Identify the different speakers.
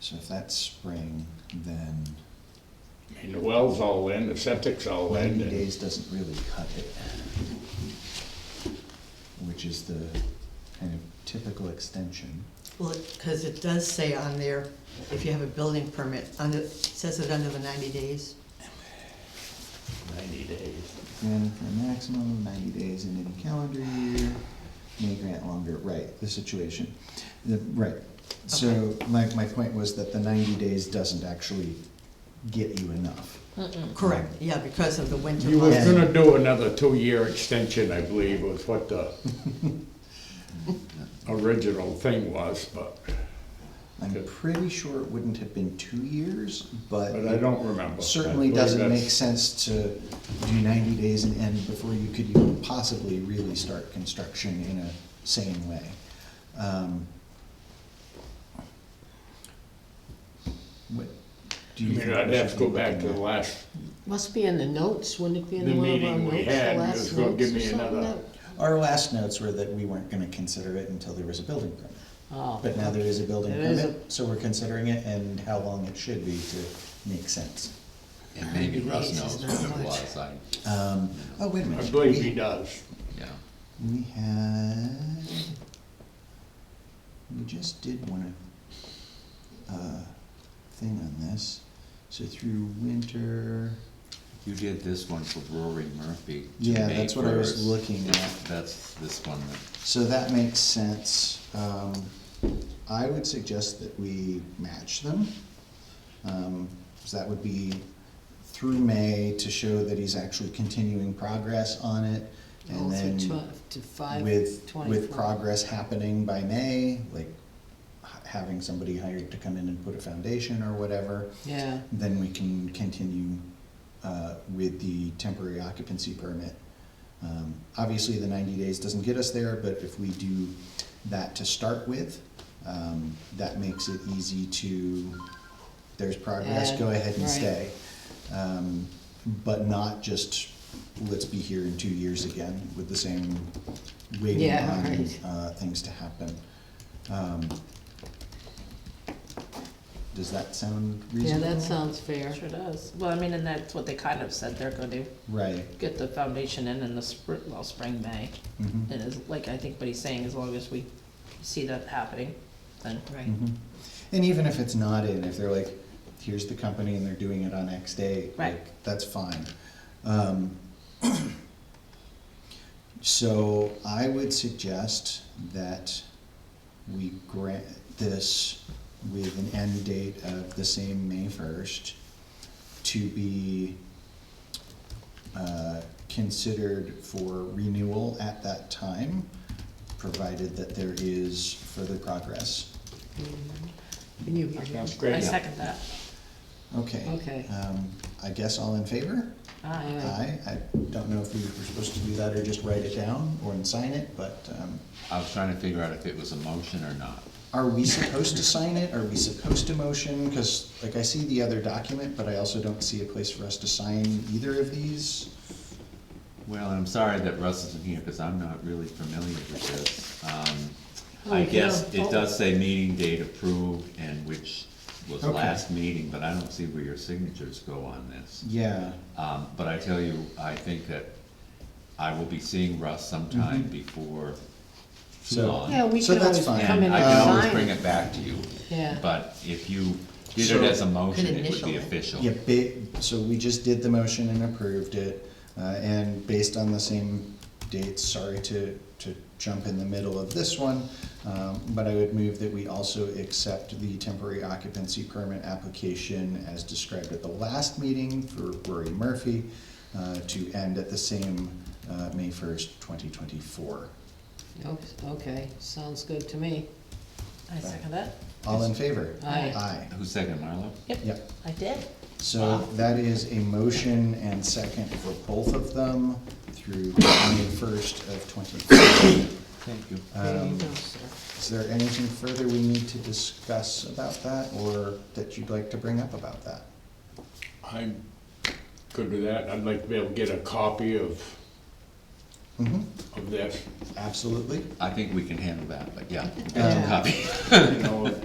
Speaker 1: So if that's spring, then
Speaker 2: I mean, the well's all in, the septic's all in,
Speaker 1: ninety
Speaker 2: Oh, and
Speaker 1: days doesn't really cut it. Which is the kind of typical extension.
Speaker 3: Well, because it does say on there, if you have a building permit, under, it says it under the ninety days.
Speaker 2: ninety days.
Speaker 1: And for a maximum of ninety days in any calendar year, may grant longer, right, the situation, the, right. So my, my point was that the ninety days doesn't actually get you enough.
Speaker 3: Correct, yeah, because of the winter.
Speaker 2: You was
Speaker 3: months.
Speaker 2: gonna do another two-year extension, I believe, was what the original thing was, but,
Speaker 1: I'm
Speaker 2: Good.
Speaker 1: pretty sure it wouldn't have been two years, but.
Speaker 2: but I don't remember. I
Speaker 1: Certainly
Speaker 2: believe
Speaker 1: doesn't make
Speaker 2: that's-
Speaker 1: sense to do ninety days and end before you could even possibly really start construction in a sane way. Um, What, do
Speaker 2: I
Speaker 1: you?
Speaker 2: mean,
Speaker 1: think
Speaker 2: I'd
Speaker 1: we
Speaker 2: have to
Speaker 1: should
Speaker 2: go
Speaker 1: be
Speaker 2: back to the
Speaker 1: looking at?
Speaker 2: last,
Speaker 4: Must be in the notes, wouldn't it be
Speaker 2: The
Speaker 4: in one of our
Speaker 2: meeting we
Speaker 4: notes,
Speaker 2: had,
Speaker 4: the
Speaker 2: you was
Speaker 4: last
Speaker 2: gonna
Speaker 4: notes
Speaker 2: give me
Speaker 4: or something?
Speaker 2: another-
Speaker 1: Our last notes were that we weren't gonna consider it until there was a building permit.
Speaker 4: Oh.
Speaker 1: But now there is a building
Speaker 4: There is a-
Speaker 1: permit, so we're considering it and how long it should be to make sense.
Speaker 5: And maybe Russ
Speaker 4: This
Speaker 5: knows
Speaker 4: is
Speaker 5: what
Speaker 4: not
Speaker 5: it
Speaker 4: much.
Speaker 5: was, I,
Speaker 1: Um, oh, wait a
Speaker 2: I
Speaker 1: minute.
Speaker 2: believe
Speaker 1: We-
Speaker 2: he does.
Speaker 5: yeah.
Speaker 1: We had, we just did one, uh, thing on this, so through winter,
Speaker 5: You did this one for Rory Murphy. to
Speaker 1: yeah,
Speaker 5: May
Speaker 1: that's what I was
Speaker 5: 1st.
Speaker 1: looking at.
Speaker 5: That's this one that,
Speaker 1: So that makes sense. Um, I would suggest that we match them. Um, so that would be through May to show that he's actually continuing progress on it.
Speaker 4: Oh,
Speaker 1: And
Speaker 4: for
Speaker 1: then
Speaker 4: tw- To five,
Speaker 1: with, with
Speaker 4: twenty-four.
Speaker 1: progress happening by May, like h- having somebody hired to come in and put a foundation or whatever,
Speaker 4: Yeah,
Speaker 1: then we can continue uh, with the temporary occupancy permit. Um, Obviously, the ninety days doesn't get us there, but if we do that to start with, um, that makes it easy to, there's progress,
Speaker 4: Add,
Speaker 1: go ahead and
Speaker 4: right.
Speaker 1: stay. Um, But not just, let's be here in two years again with the same waiting
Speaker 4: Yeah,
Speaker 1: on
Speaker 4: right.
Speaker 1: uh, things to happen. Um, Does that sound
Speaker 4: yeah,
Speaker 1: reasonable?
Speaker 4: that sounds fair.
Speaker 6: Sure does. Well, I mean, and that's what they kind of said they're gonna do,
Speaker 1: Right.
Speaker 6: get the foundation in in the spring, well, spring, May.
Speaker 4: Mm-hmm.
Speaker 1: mhm.
Speaker 6: And it's like, I think what he's saying, as long as we see that happening, then.
Speaker 4: Right.
Speaker 1: Mhm. And even if it's not in, if they're like, here's the company and they're doing it on X day,
Speaker 6: Right.
Speaker 1: like, that's fine. Um, So I would suggest that we grant this with an end date of the same May first to be uh, considered for renewal at that time, provided that there is further progress.
Speaker 4: And you-
Speaker 2: Sounds
Speaker 6: I
Speaker 2: great.
Speaker 6: second that.
Speaker 1: Okay.
Speaker 4: Okay.
Speaker 1: Um, I guess all in favor?
Speaker 6: Aye.
Speaker 1: Aye. I don't know if we were supposed to do that or just write it down or and sign it, but, um,
Speaker 5: I was trying to figure out if it was a motion or not.
Speaker 1: are we supposed to sign it? Are we supposed to motion? Cause like I see the other document, but I also don't see a place for us to sign either of these.
Speaker 5: Well, I'm sorry that Russ isn't here, because I'm not really familiar with this. Um,
Speaker 4: Oh,
Speaker 5: I
Speaker 4: yeah.
Speaker 5: guess
Speaker 4: Oh.
Speaker 5: it does say meeting date approved, and which was
Speaker 1: Okay.
Speaker 5: last meeting, but I don't see where your signatures go on this.
Speaker 1: Yeah,
Speaker 5: Um, but I tell you, I think that I will be seeing Russ sometime before too
Speaker 1: Mm-hmm. So-
Speaker 5: long.
Speaker 4: Yeah, we
Speaker 1: So
Speaker 4: can
Speaker 1: that's
Speaker 4: always come
Speaker 1: fine.
Speaker 4: in
Speaker 5: And
Speaker 4: and
Speaker 5: I can always
Speaker 4: sign.
Speaker 5: bring it back to you.
Speaker 4: Yeah.
Speaker 5: But if you did
Speaker 1: So-
Speaker 5: it as a motion, it would
Speaker 3: initial
Speaker 5: be
Speaker 3: it.
Speaker 5: official.
Speaker 1: yeah, ba- so we just did the motion and approved it, uh, and based on the same dates, sorry to, to jump in the middle of this one, um, but I would move that we also accept the temporary occupancy permit application as described at the last meeting for Rory Murphy, uh, to end at the same, uh, May first, twenty twenty-four.
Speaker 4: Oops, Okay, sounds good to me.
Speaker 6: I second that.
Speaker 1: All in favor?
Speaker 4: Aye.
Speaker 1: Aye,
Speaker 5: Who seconded, Marlo?
Speaker 6: Yep,
Speaker 1: yep.
Speaker 6: I did.
Speaker 1: So that is a motion and second for both of them through May first of twenty-four.
Speaker 5: Thank you.
Speaker 4: There you
Speaker 1: Um,
Speaker 4: go, sir.
Speaker 1: Is there anything further we need to discuss about that or that you'd like to bring up about that?
Speaker 2: I'm good with that. I'd like to be able to get a copy of,
Speaker 1: Mhm,
Speaker 2: of this,
Speaker 1: Absolutely.
Speaker 5: I think we can handle that, but yeah,
Speaker 4: Yeah.
Speaker 5: copy.
Speaker 2: you know,